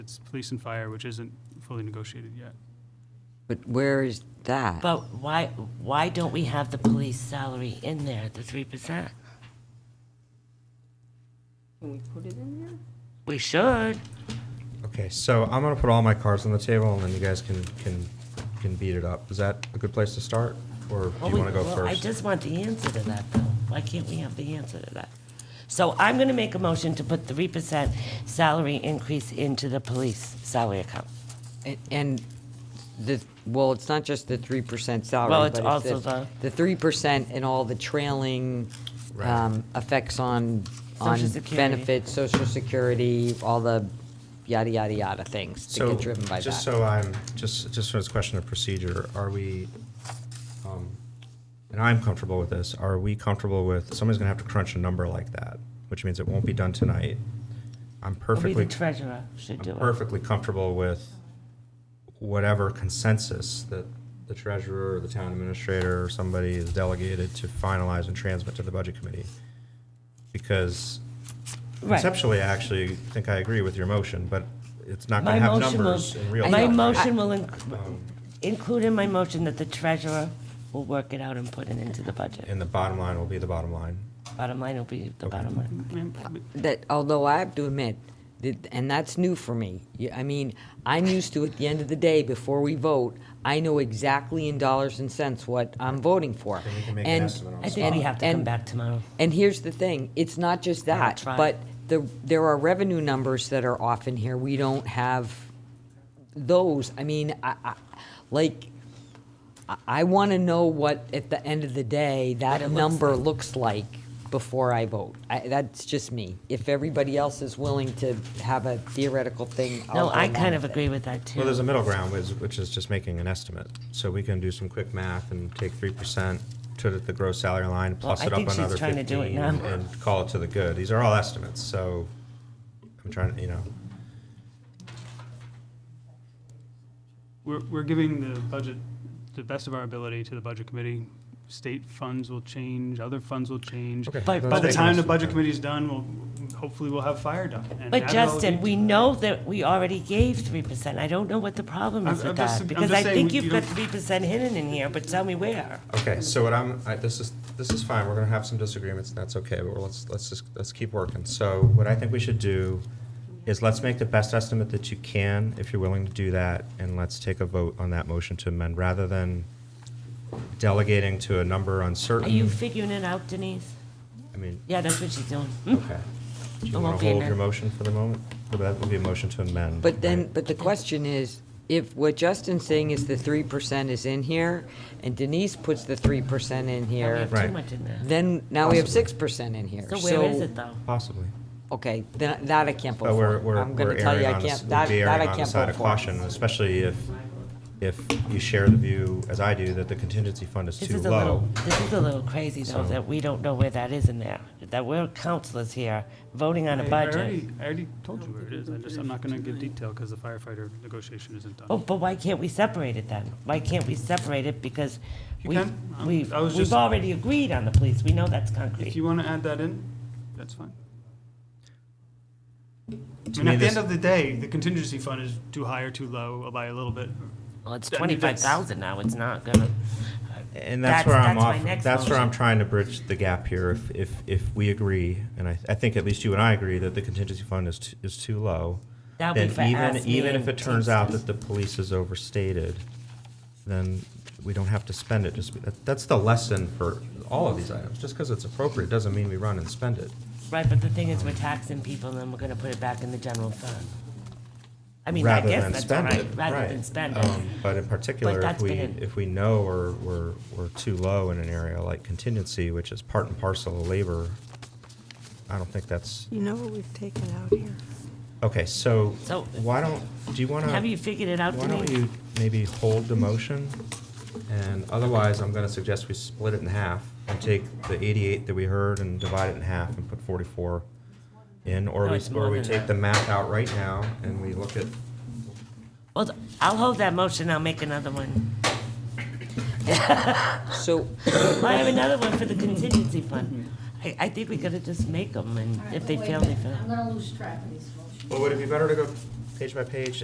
It's police and fire, which isn't fully negotiated yet. But where is that? But why, why don't we have the police salary in there, the three percent? Can we put it in there? We should. Okay, so I'm gonna put all my cards on the table, and then you guys can can can beat it up. Is that a good place to start, or do Well, you we- want to go well, I first? just want the answer to that, though. Why can't we have the answer to that? So I'm gonna make a motion to put three percent salary increase into the police salary account. And- And the, well, it's not just the three percent salary. Well, it's but also the- The three percent and all the trailing Right. um, effects on, on Social Security. benefits, social security, all the yada, yada, yada things that so get driven by just that. so I'm just just for this question of procedure, are we? Um, and I'm comfortable with this. Are we comfortable with somebody's gonna have to crunch a number like that, which means it won't be done tonight? I'm Maybe the perfectly treasurer should do I'm it. perfectly comfortable with whatever consensus that the treasurer or the town administrator or somebody is delegated to finalize and transmit to the budget committee. Because Right. conceptually, I actually think I agree with your motion, but it's not My gonna have motion will, numbers in real time. my right? motion will inc- include in my motion that the treasurer will work it out and put it into the budget. And the bottom line will be the bottom line. Bottom line will be the bottom line. That, although I have to admit, that- and that's new for me. Yeah, I mean, I'm used to, at the end of the day, before we vote, I know exactly in dollars and cents what I'm voting for. Then we can make an And- estimate on I think and- we have to come and- back tomorrow. And here's the thing, it's not just Yeah, that, that's right. but the, there are revenue numbers that are off in here, we don't have those, I mean, I, I, like, I, I wanna know what, at the end of the day, What it that looks number looks like before I vote. I, that's just me. If everybody else is willing to have a theoretical thing, I'll No, go I along kind of with it. agree with that, too. Well, there's a middle ground, which, which is just making an estimate. So we can do some quick math and take three percent to the- the gross salary line, plus I it up think she's another trying to do it fifteen, now. and call it to the good. These are all estimates, so I'm trying, to, you know, We're, we're giving the budget the best of our ability to the budget committee. State funds will change, other funds will change. Okay. By Let's by the make time this the budget then. committee's done, we'll, hopefully we'll have fire done. And Adderall But will Justin, be- we know that we already gave three percent. I don't know what the problem I'm- is I'm with just- that, I'm because just I saying think we- you've you got don't- three percent hidden in here, but tell me where. Okay, so what I'm, I, this is, this is fine, we're gonna have some disagreements, and that's okay, but let's, let's just, let's keep working. So what I think we should do is let's make the best estimate that you can, if you're willing to do that, and let's take a vote on that motion to amend, rather than delegating to a number Are you uncertain. figuring it out, Denise? I mean, Yeah, that's what she's doing. okay. Do you It wanna won't be hold your amended. motion for the moment? Well, That would be a motion to amend. But then, right? but the question is, if what Justin's saying is the three percent is in here, and Denise puts the three percent in Now We here, have too Right. much in there. then now we have Possibly. six percent in here. So where is it, though? Possibly. Okay, then, that I can't But vote we're, for. we're, I'm gonna we're tell you, erring I on the, s- can't, we'd that, be that erring I on the can't side vote of for. caution, especially if, if you share the view, as I do, that the contingency fund is This too is a little, low. this is a little crazy, though, that we don't know where that is in there, that we're counselors here, voting on a I- I budget. already- I already told you where it is. I just, I'm not gonna give detail because the firefighter negotiation isn't done. Oh, but why can't we separate it then? Why can't we separate it? Because You we've, can. Um, we've, I was we've just- already agreed on the police. We know that's concrete. If you want to add that in, that's fine. I mean, me, at the this- end of the day, the contingency fund is too high or too low by a little bit. Well, it's I mean, twenty-five that's- thousand now, it's not gonna, And that's That's- where I'm that's my off, next that's where I'm motion. trying to bridge the gap here. If, if, if we agree, and I, I think at least you and I agree, that the contingency fund is, t- is too low. that'll be Then for even, us, me even if and it turns out Teamsters. that the police is overstated, then we don't have to spend it. Just, that- that's the lesson for all of these items. Just because it's appropriate doesn't mean we run and spend it. Right, but the thing is, we're taxing people and then we're gonna put it back in the general fund. I mean, I rather than guess that's all spend right, it. rather than spend it. Um, But in particular, if that's we, been in- if we know we're, we're, we're too low in an area like contingency, which is part and parcel of labor, I don't think that's, You know what we've taken out here? okay, so So- why don't, do you want Have you to, figured it out, why don't Denise? you maybe hold the motion? And otherwise, I'm going to suggest we split it in half and take the 88 that we heard and divide it in half and put 44 in, or No, we, Oh, it's more or we than take that. the math out right now and we look at Well, I'll hold that motion, I'll make another one. So, I have another one for the contingency fund. I, I think we gotta just make them and if they Wait a fail, they minute, fail. I'm gonna lose track of these motions. Well, would it be better to go page by page